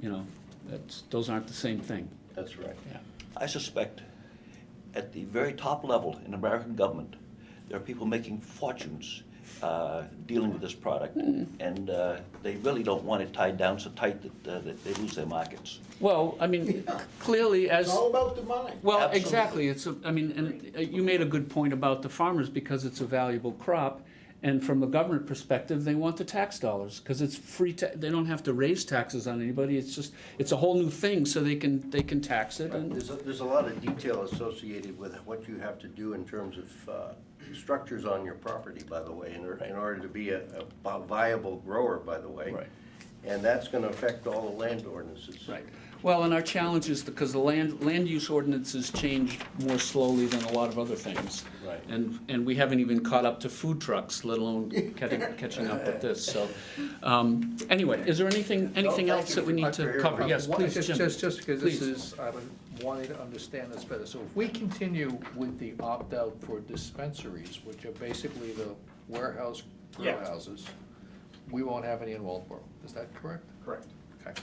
you know, that's, those aren't the same thing. That's right. Yeah. I suspect at the very top level in American government, there are people making fortunes uh, dealing with this product, and uh, they really don't want it tied down so tight that, uh, that they lose their markets. Well, I mean, clearly as. It's all about the money. Well, Absolutely. exactly, it's, a- I mean, and uh, you made a good point about the farmers, because it's a valuable crop, and from a government perspective, they want the tax dollars, because it's free, ta- they don't have to raise taxes on anybody, it's just, it's a whole new thing, so they can, they can tax it, and, There's, a- there's a lot of detail associated with what you have to do in terms of uh, structures on your property, by the way, in or- in order to be a a viable grower, by the way. Right. And that's gonna affect all the land ordinances. right. Well, and our challenge is, because the land, land use ordinances change more slowly than a lot of other things. Right. And, and we haven't even caught up to food trucks, let alone catching, catching up with this, so. um, Anyway, is there anything, anything thank else you that we very need much for to hearing cover? about Yes, Well, please, Uh, just- Jim. Just, just because this Please. is, I would wanting to understand this better. So if we continue with the opt-out for dispensaries, which are basically the warehouse grow Yeah. houses, we won't have any in Waldboro. Is that correct? Correct. Okay.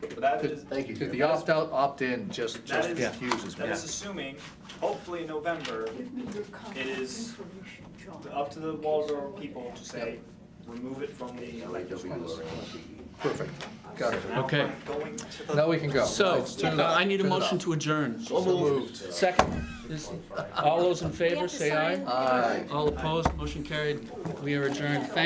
But that is, Thank you, Because Jim. the opt-out, opt-in just, That just is- confuses me. that is assuming, hopefully in November, Give me your contact is information, John. up to the in case Waldorf someone people to asks. say, remove it from the elected schools. E. Perfect. Got it. Now Okay. we're Going to the. Now we can go. So, Let's turn it uh, off. I need a Turn it motion off. to adjourn. So moved. Second, is, all those in We favor, have to say aye. sign. Aye. All opposed, motion carried. We are adjourned. Thank